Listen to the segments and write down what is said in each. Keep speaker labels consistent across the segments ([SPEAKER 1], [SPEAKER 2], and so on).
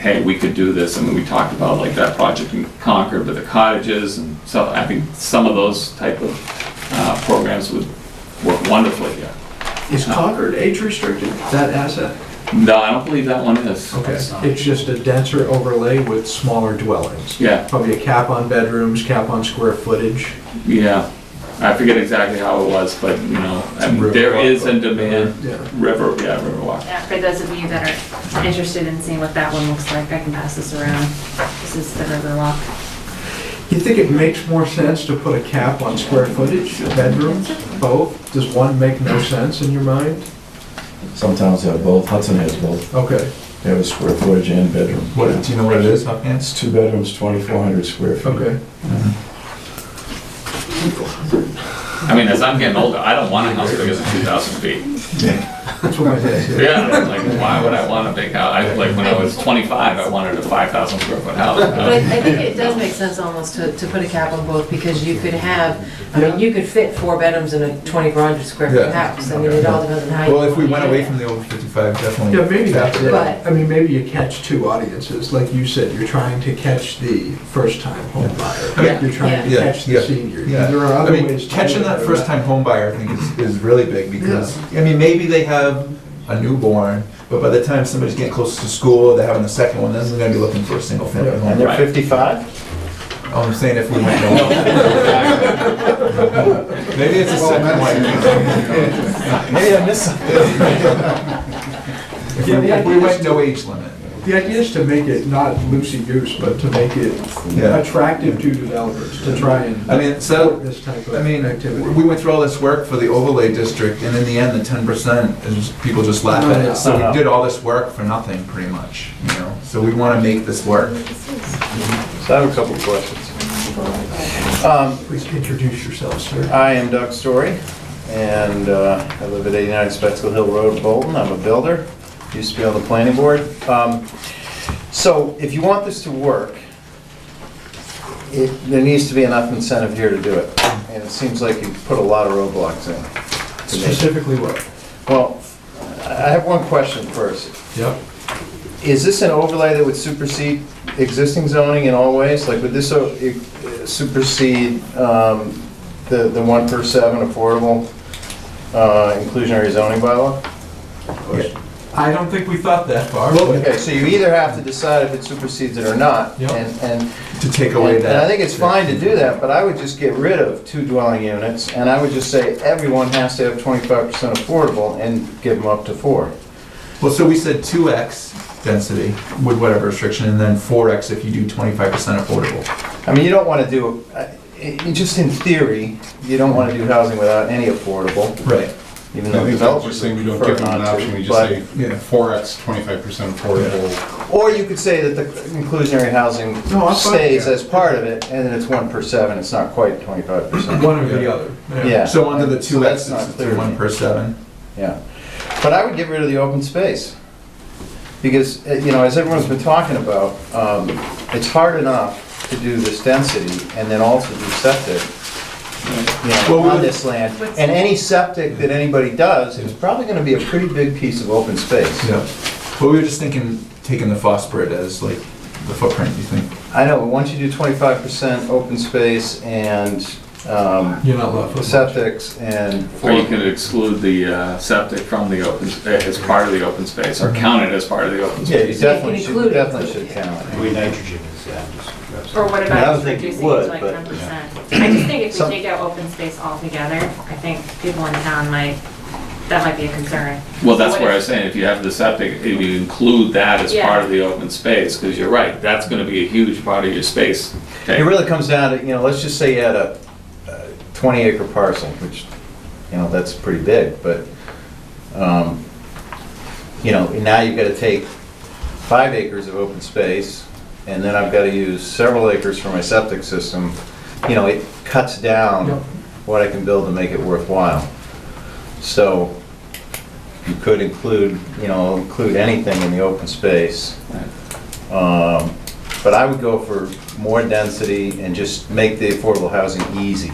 [SPEAKER 1] hey, we could do this, and we talked about like that project in Concord with the cottages, and so I think some of those type of uh, programs would work wonderfully here.
[SPEAKER 2] Is Concord age restricted, that asset?
[SPEAKER 1] No, I don't believe that one is.
[SPEAKER 2] Okay, it's just a denser overlay with smaller dwellings.
[SPEAKER 1] Yeah,
[SPEAKER 2] Probably a cap on bedrooms, cap on square footage.
[SPEAKER 1] yeah. I forget exactly how it was, but you know, I mean, there is a demand,
[SPEAKER 2] Yeah.
[SPEAKER 1] river, yeah, Riverwalk.
[SPEAKER 3] Yeah, for those of you that are interested in seeing what that one looks like, I can pass this around. This is the Riverwalk.
[SPEAKER 2] You think it makes more sense to put a cap on square footage, bedrooms, both? Does one make no sense in your mind?
[SPEAKER 4] Some towns have both, Hudson has both,
[SPEAKER 2] Okay,
[SPEAKER 4] they have a square footage and bedroom.
[SPEAKER 5] What, do you know what it is, huh?
[SPEAKER 4] It's two bedrooms, 2,400 square feet.
[SPEAKER 2] okay.
[SPEAKER 1] I mean, as I'm getting older, I don't want a house bigger than two thousand feet.
[SPEAKER 2] That's what my dad said.
[SPEAKER 1] Yeah, like, why would I want a big house? I, like, when I was twenty-five, I wanted a five thousand square foot house.
[SPEAKER 6] But I think it does make sense almost to, to put a cap on both, because you could have, I mean, you could fit four bedrooms in a twenty-four hundred square foot
[SPEAKER 5] Yeah.
[SPEAKER 6] house, I mean, it all depends on how you.
[SPEAKER 5] Well, if we went
[SPEAKER 6] want to
[SPEAKER 5] away
[SPEAKER 6] handle
[SPEAKER 5] from the old 55, definitely.
[SPEAKER 2] Yeah, maybe that's it.
[SPEAKER 6] But-
[SPEAKER 2] I mean, maybe you catch two audiences, like you said, you're trying to catch the first-time home buyer.
[SPEAKER 6] Yeah.
[SPEAKER 2] You're trying to
[SPEAKER 5] Yeah.
[SPEAKER 2] catch the
[SPEAKER 5] Yeah.
[SPEAKER 2] senior.
[SPEAKER 5] Yeah.
[SPEAKER 2] There are
[SPEAKER 5] I
[SPEAKER 2] other
[SPEAKER 5] mean,
[SPEAKER 2] ways. to
[SPEAKER 5] catching
[SPEAKER 2] do it.
[SPEAKER 5] that first-time home buyer, I think, is, is really big, because, I mean, maybe they have a newborn, but by the time somebody's getting close to school, they're having a second one, then they're gonna be looking for a single-family
[SPEAKER 4] And
[SPEAKER 5] home.
[SPEAKER 4] they're 55?
[SPEAKER 5] I'm saying if we went away. Maybe it's a second one.
[SPEAKER 4] Maybe I missed something.
[SPEAKER 5] If we- If we went no age limit.
[SPEAKER 2] The idea is to make it not loosey-goose, but to make it
[SPEAKER 5] Yeah.
[SPEAKER 2] attractive to developers, to try and.
[SPEAKER 5] I mean, so-
[SPEAKER 2] support This type of
[SPEAKER 5] I mean, we
[SPEAKER 2] activity.
[SPEAKER 5] went through all this work for the overlay district, and in the end, the ten percent is, just- people just laugh at it, so we did all this work for nothing, pretty much, you know? So we wanna make this work.
[SPEAKER 7] So I have a couple of questions. Um,
[SPEAKER 2] Please introduce yourself,
[SPEAKER 5] Uh,
[SPEAKER 2] sir.
[SPEAKER 7] I am Doug Story, and uh, I live at 89 Spetzel Hill Road, Bolton. I'm a builder, used to be on the planning board. Um, So if you want this to work, it- there needs to be enough incentive here to do it, and it seems like you put a lot of roadblocks in. to make it-
[SPEAKER 2] Specifically what?
[SPEAKER 7] Well, I have one question first.
[SPEAKER 2] Yep.
[SPEAKER 7] Is this an overlay that would supersede existing zoning in all ways? Like, would this o- e- supersede um, the the one per seven affordable uh, inclusionary zoning bylaw?
[SPEAKER 5] I don't think we thought that far.
[SPEAKER 7] Okay, so you either have to decide if it supersedes it or not.
[SPEAKER 5] Yep.
[SPEAKER 7] and- And
[SPEAKER 5] To take away
[SPEAKER 7] and
[SPEAKER 5] that.
[SPEAKER 7] I think it's fine to do that, but I would just get rid of two dwelling units, and I would just say everyone has to have 25% affordable and give them up to four.
[SPEAKER 5] Well, so we said two X density with whatever restriction, and then four X if you do twenty-five percent affordable.
[SPEAKER 7] I mean, you don't want to do, I- i- just in theory, you don't want to do housing without any affordable,
[SPEAKER 5] Right.
[SPEAKER 7] even
[SPEAKER 8] I think
[SPEAKER 7] though
[SPEAKER 8] that's just
[SPEAKER 7] developers
[SPEAKER 8] saying we don't
[SPEAKER 7] prefer
[SPEAKER 8] give them an
[SPEAKER 7] not
[SPEAKER 8] option, we
[SPEAKER 7] to.
[SPEAKER 8] just say
[SPEAKER 7] but-
[SPEAKER 5] Yeah.
[SPEAKER 8] four X, twenty-five percent affordable.
[SPEAKER 7] Or you could say that the inclusionary housing
[SPEAKER 2] No, I'm fine
[SPEAKER 7] stays
[SPEAKER 2] with
[SPEAKER 7] as part of it, and then it's one per seven, it's not quite twenty-five percent.
[SPEAKER 2] One or the other.
[SPEAKER 7] Yeah.
[SPEAKER 5] So under the
[SPEAKER 7] So
[SPEAKER 5] two X,
[SPEAKER 7] that's not
[SPEAKER 5] it's the
[SPEAKER 7] clear.
[SPEAKER 5] one per seven.
[SPEAKER 7] Yeah. But I would get rid of the open space. Because, eh, you know, as everyone's been talking about, um, it's hard enough to do this density and then also do septic, you
[SPEAKER 5] Well,
[SPEAKER 7] know,
[SPEAKER 5] we
[SPEAKER 7] on
[SPEAKER 5] would-
[SPEAKER 7] this land. And any septic that anybody does is probably gonna be a pretty big piece of open space.
[SPEAKER 5] Yeah. But we were just thinking, taking the phosphorus as like the footprint, you think?
[SPEAKER 7] I know, but once you do twenty-five percent open space and, um,
[SPEAKER 2] You're not left with.
[SPEAKER 7] septics and.
[SPEAKER 1] Or you could exclude the uh, septic from the open, sp- eh, as part of the open space, or count it as part of the open
[SPEAKER 7] Yeah,
[SPEAKER 1] space.
[SPEAKER 7] you definitely should, you
[SPEAKER 6] include it.
[SPEAKER 7] definitely should count it.
[SPEAKER 9] Green nitrogen is, yeah, just.
[SPEAKER 3] Or what
[SPEAKER 9] I
[SPEAKER 3] about
[SPEAKER 9] don't think it
[SPEAKER 3] reducing it
[SPEAKER 9] would,
[SPEAKER 3] to like
[SPEAKER 9] but-
[SPEAKER 3] ten percent? I just think if we
[SPEAKER 7] Some-
[SPEAKER 3] take out open space altogether, I think people in town might, that might be a concern.
[SPEAKER 1] Well, that's
[SPEAKER 3] What
[SPEAKER 1] where I
[SPEAKER 3] if-
[SPEAKER 1] was saying, if you have the septic, if you include that as
[SPEAKER 3] Yeah.
[SPEAKER 1] part of the open space, because you're right, that's gonna be a huge part of your space.
[SPEAKER 7] It really comes down to, you know, let's just say you had a a 20 acre parcel, which, you know, that's pretty big, but, um, you know, now you've got to take five acres of open space, and then I've got to use several acres for my septic system. You know, it cuts down
[SPEAKER 2] Yep.
[SPEAKER 7] what I can build to make it worthwhile. So you could include, you know, include anything in the open space. Um, But I would go for more density and just make the affordable housing easy.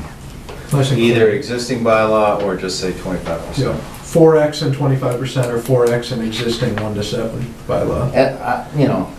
[SPEAKER 7] Either existing bylaw or just say twenty-five
[SPEAKER 2] Yeah,
[SPEAKER 7] percent.
[SPEAKER 2] four X and twenty-five percent, or four X and existing one to seven bylaw.
[SPEAKER 7] And, I- you know,